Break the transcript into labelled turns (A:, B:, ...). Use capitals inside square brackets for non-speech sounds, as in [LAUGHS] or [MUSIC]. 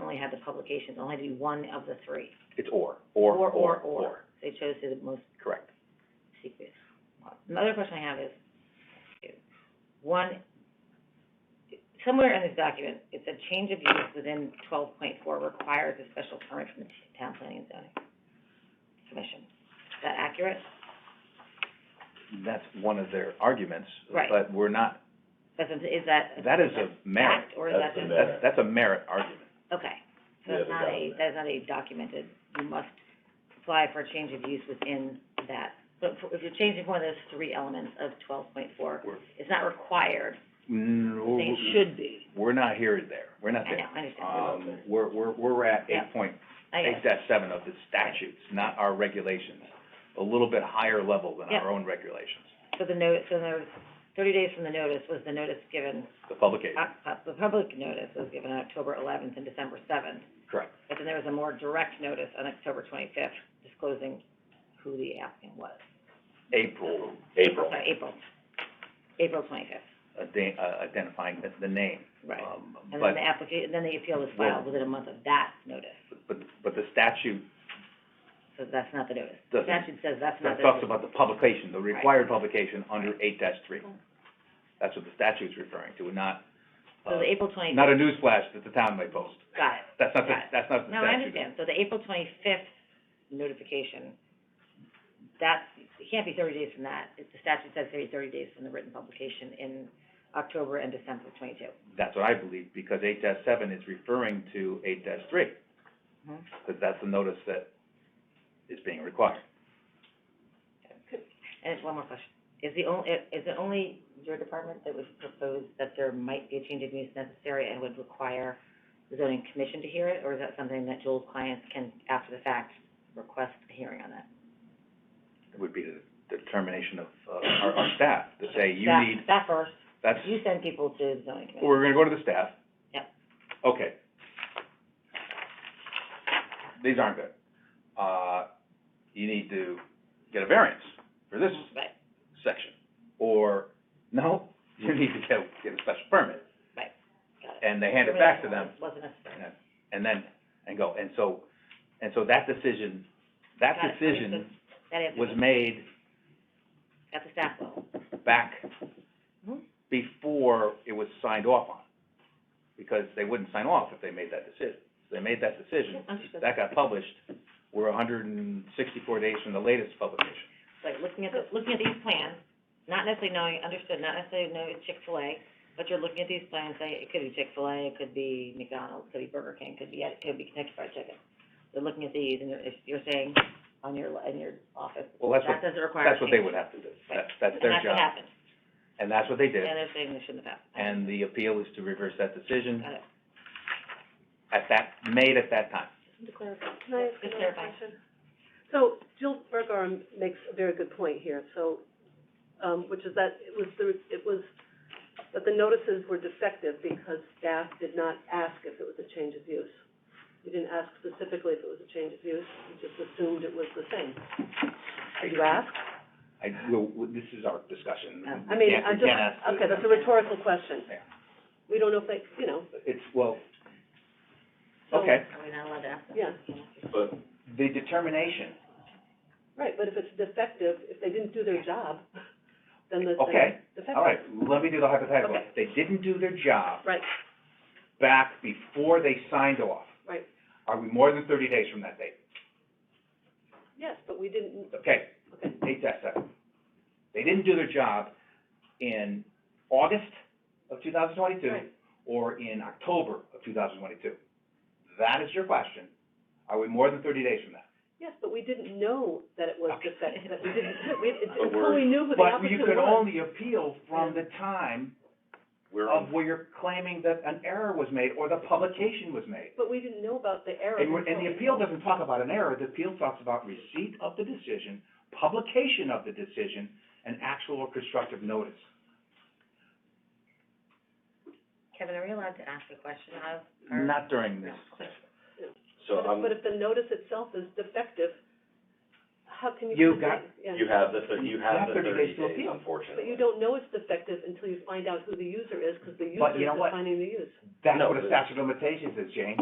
A: only had the publications, only had to be one of the three.
B: It's or, or, or,
A: Or,
B: or.
A: or, they chose the most
B: Correct.
A: secret. Another question I have is, one, somewhere in this document, it said change of use within twelve point four requires a special permit from the town planning and zoning commission. Is that accurate?
B: That's one of their arguments.
A: Right.
B: But we're not,
A: That's, is that?
B: that is a merit.
A: Fact, or is that
C: That's
A: just?
C: a
B: That's, that's a merit argument.
A: Okay, so
C: Yeah,
A: that's
C: the
A: not a,
C: government.
A: that is not a documented, you must apply for a change of use within that. But for- if you're changing one of those three elements of twelve point four,
B: We're-
A: it's not required,
B: No,
A: they should be.
B: Mm, We're not here or there. We're not
A: I know,
B: there.
A: I understand.
B: Um, we're, we're, we're at
A: Yeah.
B: eight point,
A: I
B: eight
A: guess,
B: dash seven of the statutes, not our regulations. A little bit higher level than
A: Yeah.
B: our own regulations,
A: so the notice, so there, thirty days from the notice was the notice given,
B: the publication,
A: uh, uh, the public notice was given on October eleventh and December seventh.
B: correct.
A: But then there was a more direct notice on October twenty-fifth disclosing who the applicant was.
B: April,
C: April.
A: Sorry, April, April twenty-fifth,
B: ident- uh, identifying the, the name.
A: right.
B: Um,
A: And
B: but-
A: then the applica- then the appeal is filed within a month of that notice,
B: But, but the statute
A: so that's not the notice. The
B: doesn't,
A: statute says that's not the.
B: that talks about the publication, the required publication under eight three. That's what the statute's referring to, not,
A: So
B: uh,
A: the April twenty,
B: not a newsflash that the town may post.
A: got it.
B: That's not the,
A: Got it.
B: that's not the
A: No,
B: statute.
A: I understand, so the April twenty-fifth notification, that, it can't be thirty days from that. It- The statute says thirty, thirty days from the written publication in October and December of twenty-two.
B: That's what I believe, because eight seven is referring to eight three,
A: Mhm.
B: because that's the notice that is being required.
A: And it's one more question. Is the only, is it only your department that would propose that there might be a change of use necessary and would require the zoning commission to hear it? Or is that something that Joel's clients can, after the fact, request a hearing on that?
B: It would be the determination of, uh, our, our staff to say, you
A: Staff-
B: need,
A: Staff first,
B: that's,
A: you send people to the zoning commission.
B: we're gonna go to the staff.
A: Yep.
B: Okay. These aren't good. Uh, you need to get a variance for this
A: Right,
B: section, or, no, you need to get, get a special permit.
A: got it.
B: And they hand it back to them,
A: Wasn't necessary.
B: and- and then, and go, and so, and so that decision, that
A: Got it.
B: decision
A: That is,
B: was made
A: at the staff level.
B: back
A: Mhm.
B: before it was signed off on, because they wouldn't sign off if they made that decision. So They made that decision,
A: Understood.
B: that got published, we're hundred and sixty-four days from the latest publication.
A: Like, looking at the, looking at these plans, not necessarily knowing, understood, not necessarily knowing it's Chick-fil-A, but you're looking at these plans, say, it could be Chick-fil-A, it could be McDonald's, it could be Burger King, it could be, it could be Kentucky Fried Chicken. You're looking at these, and you're, if you're saying on your, in your office,
B: Well, that's
A: that
B: what,
A: doesn't require a
B: that's what they
A: change.
B: would have to do,
A: Right.
B: that's, that's their
A: And that's what
B: job,
A: happened,
B: and that's what they did,
A: and they're saying they shouldn't have happened.
B: and the appeal is to reverse that decision
A: Got it.
B: at that, made at that time.
D: Can I ask
A: Just
D: another
A: clarify.
D: question? So Jill Bergar makes a very good point here, so, um, which is that it was the, it was, that the notices were defective because staff did not ask if it was a change of use. We didn't ask specifically if it was a change of use, we just assumed it was the same. Did you ask?
B: I, well, w- this is our
A: Oh.
B: discussion. We
D: I mean,
B: can't-
D: I'm
B: we
D: just,
B: can't ask the-
D: okay, that's a rhetorical question.
B: Yeah.
D: We don't know if they, you know,
B: It's, well,
D: so-
B: okay,
A: Are we not allowed to ask them?
D: Yeah.
C: But
B: the determination,
D: right, but if it's defective, if they didn't do their job, then the
B: Okay.
D: thing's defective.
B: all right, let me do the hypothetical.
D: Okay.
B: They didn't do their job
D: Right,
B: back before they signed off.
D: Right.
B: Are we more than thirty days from that date?
D: yes, but we didn't,
B: Okay,
D: okay,
B: eight dash seven. They didn't do their job in August of two thousand twenty-two
D: Right.
B: or in October of two thousand twenty-two. That is your question. Are we more than thirty days from that?
D: Yes, but we didn't know that it was
B: Okay.
D: defective, that we didn't, [LAUGHS] we, it-
C: But
D: until
C: we're-
D: we knew who the
B: But you
D: applicant
B: could
D: was.
B: only appeal from the time
C: we're
B: of
C: on,
B: where you're claiming that an error was made or the publication was made.
D: But we didn't know about the error.
B: And, we're- and
D: until-
B: the appeal doesn't talk about an error, the appeal talks about receipt of the decision, publication of the decision, and actual or constructive notice.
A: Kevin, are we allowed to ask a question of, or?
B: Not during this.
D: But
C: so um,
D: if-
C: I'm,
D: But if the notice itself is defective, how can you?
B: You
D: complain?
B: got-
D: Yeah.
C: you have the, thir- you have
B: You have 30
C: the thirty
B: days to
C: days,
B: appeal.
C: unfortunately.
D: But you don't know it's defective until you find out who the user is, because the
B: But
D: user
B: you
D: is
B: know what?
D: defining the use.
B: That's
C: No,
B: what a
C: but-
B: statute of limitations is, Jane.